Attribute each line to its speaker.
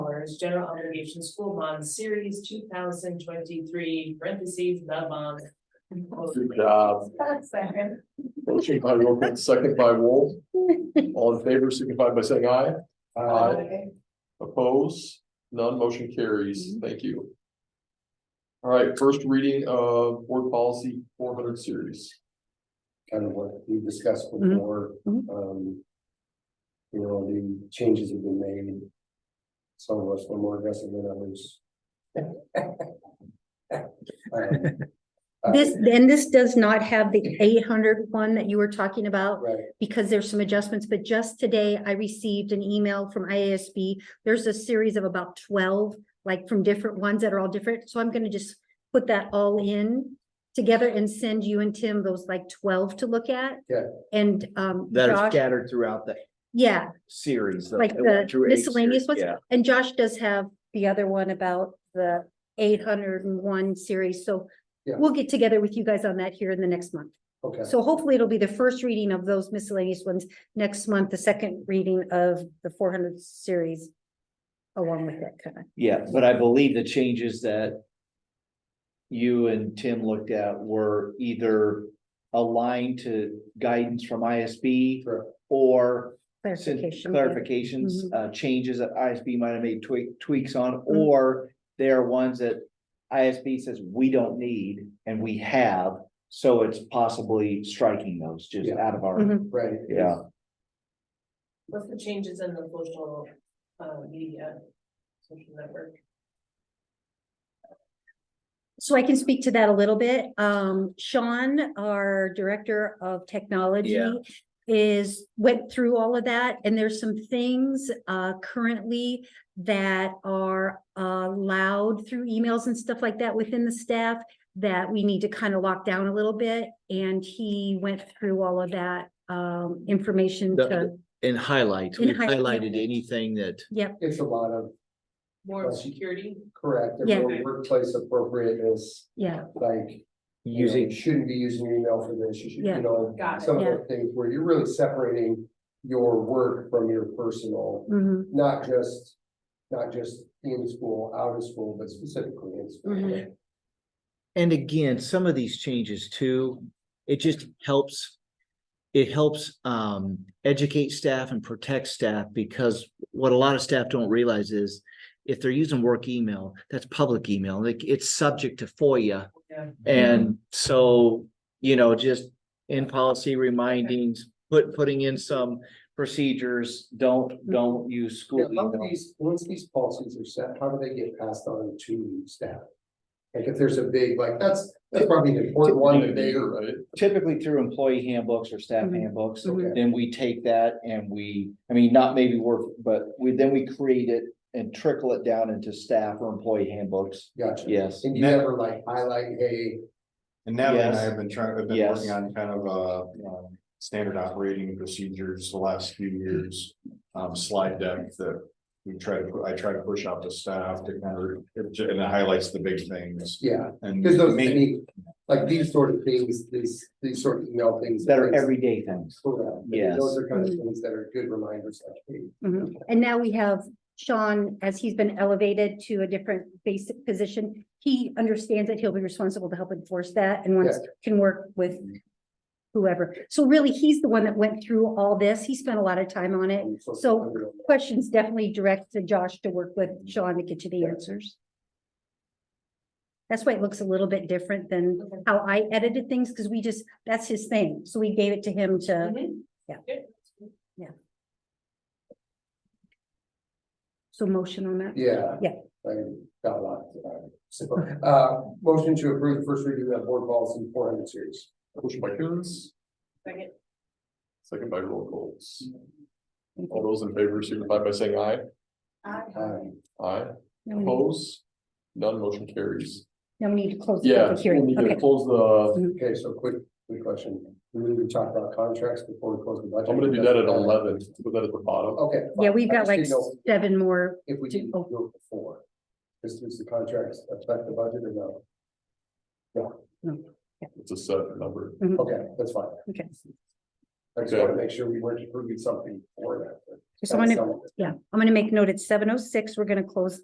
Speaker 1: Partners General Obligation School Bond Series two thousand twenty-three, parentheses, the bond.
Speaker 2: Good job. Uh, Motion by Workman, second by Wolf. All in favor, signify by saying aye. Oppose, none, motion carries. Thank you. All right, first reading of board policy four hundred series.
Speaker 3: kind of what we discussed before,
Speaker 4: Mhm.
Speaker 3: um. You know, the changes have been made. Some of us were more aggressive than others. Um, uh,
Speaker 4: This, then this does not have the 800 one that you were talking about
Speaker 3: Right,
Speaker 4: because there's some adjustments, but just today I received an email from IASB. There's a series of about twelve, like from different ones that are all different. So I'm gonna just put that all in together and send you and Tim those like twelve to look at.
Speaker 3: Yeah.
Speaker 4: And um,
Speaker 5: that are
Speaker 4: Josh,
Speaker 5: scattered throughout the
Speaker 4: yeah,
Speaker 5: series.
Speaker 4: Like
Speaker 5: one
Speaker 4: the
Speaker 5: through eight
Speaker 4: miscellaneous ones?
Speaker 5: series, Yeah,
Speaker 4: and Josh does have the other one about the eight hundred and one series. So
Speaker 3: Yeah.
Speaker 4: we'll get together with you guys on that here in the next month.
Speaker 3: okay,
Speaker 4: So hopefully it'll be the first reading of those miscellaneous ones next month, the second reading of the four hundred series. Along with that kind of,
Speaker 5: yeah, but I believe the changes that you and Tim looked at were either aligned to guidance from ISB
Speaker 3: Correct.
Speaker 5: or sin-
Speaker 4: clarification. Mm-hmm.
Speaker 5: clarifications, uh, changes that ISB might have made tweak, tweaks on, or they are ones that ISB says we don't need and we have, so it's possibly striking those just
Speaker 3: Yeah.
Speaker 5: out of our,
Speaker 4: Mhm.
Speaker 3: right.
Speaker 5: yeah.
Speaker 1: What's the changes in the social, uh, media? Social network.
Speaker 4: So I can speak to that a little bit. Um, Sean, our director of technology.
Speaker 5: Yeah.
Speaker 4: Is went through all of that and there's some things uh currently that are allowed through emails and stuff like that within the staff. That we need to kind of lock down a little bit and he went through all of that um information
Speaker 6: The-
Speaker 4: to,
Speaker 6: And highlight,
Speaker 4: And
Speaker 6: we
Speaker 4: highlight, yeah.
Speaker 6: highlighted anything that,
Speaker 3: It's a lot of
Speaker 1: more security.
Speaker 3: correct, and
Speaker 4: Yeah.
Speaker 3: more workplace appropriateness,
Speaker 4: yeah,
Speaker 3: like. you know,
Speaker 5: Using
Speaker 3: you Shouldn't be using your email for this, you should,
Speaker 4: Yeah.
Speaker 3: you know,
Speaker 1: Got it.
Speaker 3: some of
Speaker 4: Yeah.
Speaker 3: the things where you're really separating your work from your personal.
Speaker 4: mhm,
Speaker 3: not just, not just in school, out of school, but specifically in school.
Speaker 4: Mhm.
Speaker 6: and again, some of these changes too, it just helps. It helps um educate staff and protect staff because what a lot of staff don't realize is. If they're using work email, that's public email, like it's subject to FOIA.
Speaker 1: Yeah.
Speaker 6: And so, you know, just in policy remindings, put putting in some procedures, don't don't use
Speaker 3: Now,
Speaker 6: school
Speaker 3: how do
Speaker 6: email.
Speaker 3: these, once these policies are set, how do they get passed on to staff? Like if there's a big, like, that's, that's probably an important one that they,
Speaker 2: Right?
Speaker 5: typically through employee handbooks or staff
Speaker 4: Mhm.
Speaker 5: handbooks,
Speaker 3: Okay.
Speaker 5: then we take that and we, I mean, not maybe work, but we, then we create it and trickle it down into staff or employee handbooks.
Speaker 3: gotcha.
Speaker 5: Yes,
Speaker 3: And you never like highlight, hey,
Speaker 7: And Natalie and I
Speaker 5: Yes.
Speaker 7: have been trying, have been
Speaker 5: Yes.
Speaker 7: working on kind of uh um, standard operating procedures the last few years. Um, slide deck that we try to, pu- I try to push out to staff to kind of, it ju- and it highlights the big things.
Speaker 3: yeah,
Speaker 7: And
Speaker 3: because those, I
Speaker 7: make-
Speaker 3: mean, like these sort of things, these, these sort of email things.
Speaker 5: that are everyday things.
Speaker 3: Correct. I mean, Those are kind of things that are good reminders, like, hey,
Speaker 4: mhm. And now we have Sean, as he's been elevated to a different basic position. He understands that he'll be responsible to help enforce that and wants, can work with. Whoever, so really, he's the one that went through all this, he spent a lot of time on it.
Speaker 3: I'm so-
Speaker 4: So- Questions definitely direct to Josh to work with Sean to get you the answers. That's why it looks a little bit different than how I edited things, because we just, that's his thing, so we gave it to him to,
Speaker 1: Mhm.
Speaker 4: yeah.
Speaker 1: Good.
Speaker 4: so motion on that.
Speaker 3: Yeah.
Speaker 4: Yeah.
Speaker 3: I got a lot. uh, so, Uh, motion to approve the first reading of board policy four hundred series.
Speaker 2: Motion by Coons,
Speaker 1: Second.
Speaker 2: second by roll calls. All those in favor signify by saying aye.
Speaker 3: Um,
Speaker 2: Aye.
Speaker 4: Now we need-
Speaker 2: Oppose, none, motion carries.
Speaker 4: now we need to close the
Speaker 2: Yeah,
Speaker 4: public
Speaker 2: we
Speaker 4: hearing,
Speaker 2: need to
Speaker 4: okay.
Speaker 2: close the,
Speaker 3: okay, so quick, quick question. We need to talk about contracts before we close the budget.
Speaker 2: I'm gonna do that at eleven, put that at the bottom.
Speaker 3: Okay.
Speaker 4: Yeah,
Speaker 3: fine.
Speaker 4: we've
Speaker 3: I
Speaker 4: got
Speaker 3: just
Speaker 4: like
Speaker 3: didn't know
Speaker 4: seven more,
Speaker 3: If we didn't do it before. This is the contracts affect the budget or no?
Speaker 2: It's a set number.
Speaker 3: Okay, that's fine.
Speaker 4: okay.
Speaker 3: I just wanna make sure we weren't approving something for that. but
Speaker 4: So I'm
Speaker 3: that's
Speaker 4: gonna,
Speaker 3: some of it.
Speaker 4: yeah, I'm gonna make note at seven oh six, we're gonna close